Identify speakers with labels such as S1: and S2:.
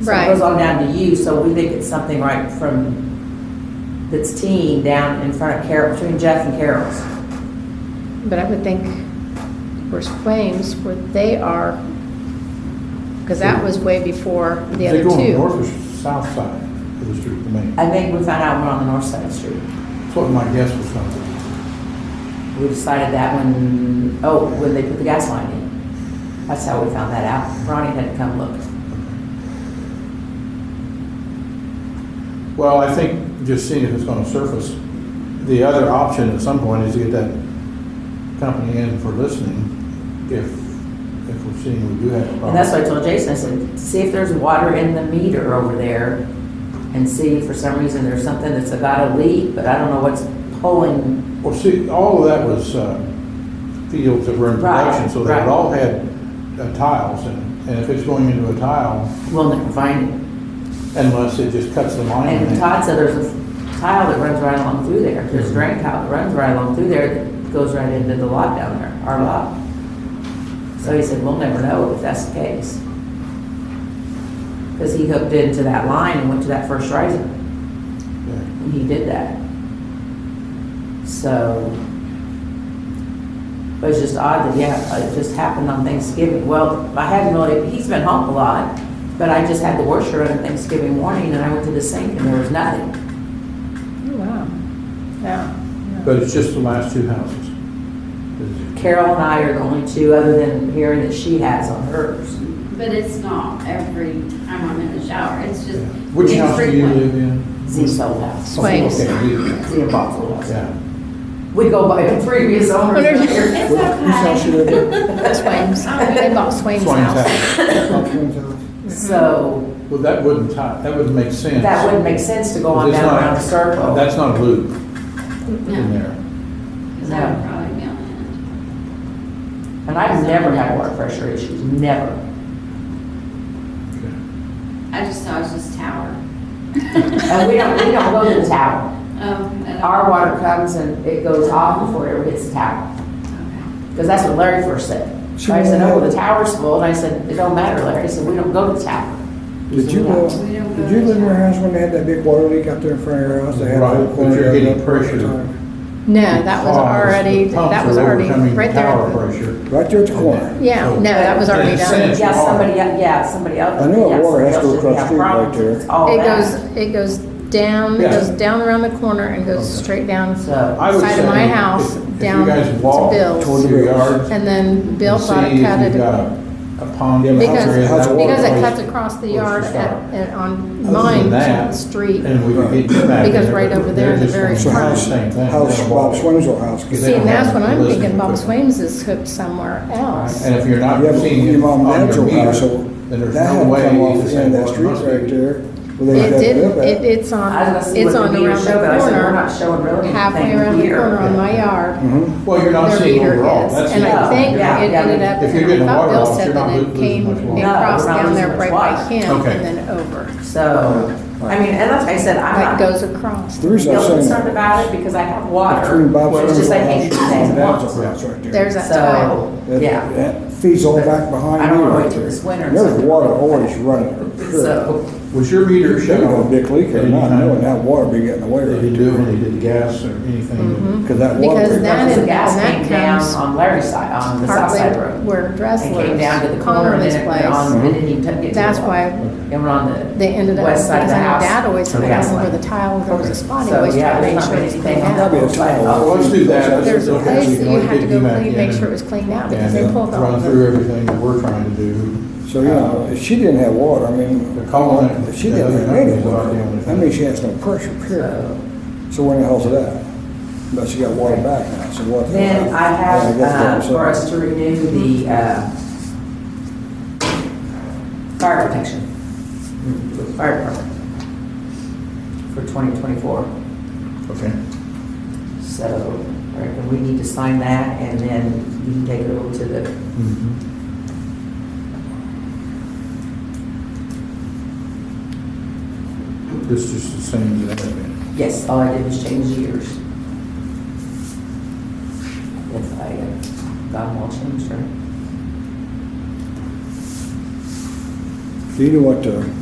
S1: So it
S2: Right.
S1: goes on down to you, so we think it's something right from that's teen down in front of Carol, between Jeff and Carol's.
S2: But I would think where's Flames, where they are, because that was way before the other
S3: They go on the north
S2: two.
S3: or south side of the street, the main.
S1: I think we found out we're on the north side of the street.
S3: That's what my guess was going to be.
S1: We decided that when, oh, when they put the gas line in. That's how we found that out. Ronnie had to come look.
S3: Well, I think just seeing if it's gonna surface, the other option at some point is to get that company in for listening, if, if we're seeing we do have a problem.
S1: And that's what I told Jason, I said, see if there's water in the meter over there and see if for some reason there's something that's got a leak, but I don't know what's pulling.
S3: Well, see, all of that was, uh, fields that were in
S1: Right,
S3: production, so they
S1: right.
S3: had all had uh, tiles, and, and if it's going into a tile,
S1: We'll never find it.
S3: unless it just cuts the line.
S1: And Todd said there's a tile that runs right along through there. There's a drain tile that runs right along through there that goes right into the lot down there, our lot. So he said, we'll never know if that's the case. Because he hooked into that line and went to that first riser.
S3: Yeah.
S1: And he did that. So, but it's just odd that, yeah, it just happened on Thanksgiving. Well, I hadn't really, he's been home a lot, but I just had the washer on Thanksgiving morning and I went to the sink and there was nothing.
S2: Oh, Wow, yeah.
S3: But it's just the last two houses.
S1: Carol and I are the only two, other than hearing that she has on hers.
S4: But it's not every time I'm in the shower, it's just.
S3: Which house do you live
S4: infrequent.
S3: in?
S1: Z's old house,
S2: Swings.
S3: Okay, you-
S1: Z and Bob's old house.
S3: yeah.
S1: We go by the previous owners here.
S4: It's
S3: Where- Whose house you
S4: okay.
S3: live in?
S2: Swaim's, they bought Swaim's
S3: Swain's
S2: house.
S1: So
S3: Well, that wouldn't tie, that wouldn't make sense.
S1: that wouldn't make sense to go on
S3: It's
S1: down
S3: not-
S1: around the circle.
S3: That's not a loop in Uh-huh.
S4: No,
S3: there.
S4: because that would probably be on the end.
S1: And I've never had water pressure issues, never.
S4: I just thought it was just tower.
S1: And we don't, we don't go to the tower.
S4: Um, and-
S1: Our water comes and it goes off before it ever hits the tower.
S4: Okay.
S1: Because that's what Larry first said. I said, oh, the tower's full. And I said, it don't matter, Larry. He said, we don't go to the tower.
S5: Did you, uh,
S4: We don't go
S5: did you
S4: to
S5: live in your
S4: town.
S5: house when they had that big water leak out there in front of your house? They had a
S3: Right,
S5: whole
S3: but
S5: corner
S3: you're
S5: of it
S3: getting
S5: up all the
S3: pressure.
S5: time.
S2: No, that was already, that was already, right there.
S3: Power pressure.
S5: Right there at the corner.
S2: Yeah, no, that was already
S3: That's
S2: done.
S3: it.
S1: Yeah, somebody, el- yeah, somebody else.
S5: I know
S1: yeah,
S5: water has to
S1: somebody
S5: go
S1: else did
S5: across the
S1: have
S5: street right
S1: problems.
S5: there.
S1: It's all
S2: It goes,
S1: that.
S2: it goes down, it
S3: Yeah.
S2: goes down around the corner and goes
S3: Okay.
S2: straight down
S1: So,
S3: I would
S2: side of
S3: say
S2: my
S3: if-
S2: house,
S3: if you
S2: down
S3: guys
S2: to
S3: walk
S2: Bill's.
S3: Toward your yard.
S2: and then Bill
S3: and
S2: bought
S3: see
S2: it,
S3: if
S2: cut
S3: you've got
S2: it.
S3: a- a pond.
S5: Yeah, but
S3: somewhere
S2: Because-
S3: in that
S5: how's the water
S2: Because it
S3: waterway.
S2: cuts across the
S3: Where's
S2: yard
S3: the
S2: at,
S3: stop?
S2: at- on
S3: Other than
S2: mine,
S3: that,
S2: street.
S3: And we could get you back.
S2: Because
S3: there,
S2: right
S3: but
S2: over there
S3: they're
S2: at the
S3: just
S2: very
S3: gonna
S5: So
S2: front.
S3: do the
S5: house,
S3: same thing.
S5: house,
S3: They'll
S5: Bob
S3: walk.
S5: Swin's old
S3: Is
S5: house.
S2: See,
S3: it-
S5: gets-
S2: and that's what I'm thinking, Bob
S3: Listening.
S2: Swaim's is hooked somewhere else.
S3: And if you're not
S5: Yeah, but
S3: seeing
S5: your
S3: it
S5: mom
S3: on
S5: dad's
S3: your
S5: old house,
S3: meter,
S5: so
S3: then there's
S5: that had
S3: no
S5: to
S3: way.
S5: come off
S3: you
S5: the
S3: say,
S5: end of
S3: "Well,
S5: that
S3: it
S5: street
S3: must be."
S5: right there. where they
S2: It
S5: dug
S2: didn't,
S5: up at.
S2: it, it's
S1: I was
S2: on,
S1: gonna see
S2: it's
S1: what
S2: on
S1: the meter
S2: around the
S1: showed, but I said, we're not
S2: corner,
S1: showing really
S2: halfway around
S1: anything
S2: the
S1: here.
S2: corner on my yard.
S5: Mhm.
S3: Well, you're not
S2: Their
S3: seeing
S2: meter
S3: overall.
S2: is,
S3: That's
S2: and
S3: the
S2: I
S3: problem.
S2: think it
S1: Yeah, yeah,
S2: ended
S1: yeah.
S2: up,
S3: If you're getting
S2: I thought
S3: water
S2: Bill
S3: off,
S2: said
S3: you're not
S2: that it
S3: losing
S2: came,
S3: much water.
S2: it
S1: No,
S2: crossed
S1: we're not
S2: down there
S1: losing
S2: right
S1: much
S2: by
S1: water.
S2: him
S3: Okay.
S2: and then over.
S1: So, I mean, and like I said,
S2: Like
S1: I'm not
S2: goes across.
S5: The reason I'm
S1: real
S5: saying
S1: concerned
S5: that.
S1: about it because I have
S5: Between
S1: water.
S5: Bob
S1: It's
S5: Swin's
S1: just I
S5: old
S1: hate
S5: house
S1: two
S5: and
S1: things
S5: my
S1: at
S5: dad's
S1: once.
S5: old house right there.
S2: There's that tile.
S1: So,
S5: That-
S1: yeah.
S5: That feeds all back behind
S1: I
S5: you
S1: don't wanna
S5: right
S1: wait till
S5: there.
S1: this winter and
S5: There's
S1: something-
S5: water always running. for sure.
S1: So,
S3: Was your meter
S5: You're
S3: shut
S5: gonna
S3: off?
S5: big leak or
S3: at any
S5: not,
S3: time?
S5: knowing that water be getting away
S3: Did you
S5: right
S3: do it
S5: there.
S3: when they did the gas or
S2: Mm-hmm.
S3: anything?
S5: Cause that water.
S2: Because
S5: break-
S2: that
S1: Because
S2: is-
S1: the gas
S2: and that
S1: came down
S2: comes
S1: on Larry's side, on the south side
S2: Partly
S1: road.
S2: where Dress
S1: And came down to the
S2: lives,
S1: corner and
S2: Connor's
S1: then it went
S2: place.
S1: on, and then you took it to the.
S2: That's
S1: wall.
S2: why
S1: It went on the.
S2: They ended up,
S1: west
S2: because
S1: side
S2: I
S1: of
S2: know
S1: the house.
S2: dad always
S1: to the
S2: took
S1: gas
S2: out where
S1: line.
S2: the tile, there was a spot, he
S1: So,
S2: always
S1: yeah,
S2: tried to
S1: there's
S2: make
S1: not
S2: sure it was
S1: anything
S2: cleaned
S1: out.
S2: out.
S5: That'd be a tile.
S3: Well, let's do that.
S2: There's a
S3: Okay,
S2: place
S3: so you
S2: that you
S3: wanna
S2: had to
S3: get
S2: go
S3: you back
S2: clean, make
S3: in
S2: sure it
S3: and-
S2: was cleaned out, because
S3: And
S2: they
S3: uh,
S2: pulled all
S3: run
S2: of
S3: through
S2: them.
S3: everything that we're trying to do.
S5: So, you know, if she didn't have water, I mean,
S3: The colon and-
S5: if she didn't have any water, that means she has no pressure, period.
S1: So,
S5: So where in the hell's it at? But she got water back now, so what? the
S1: Then
S5: hell?
S1: I
S5: Yeah, I
S1: have, uh,
S5: guess
S1: for
S5: that's
S1: us to renew the, uh, fire protection. with Fire department. For twenty twenty-four.
S3: Okay.
S1: So, all right, and we need to sign that, and then you can take it over to the,
S3: This is Mm-hmm. just the same as that.
S1: yes, all I did was change years. If I uh, got them all changed, right?
S5: Do you know what uh, the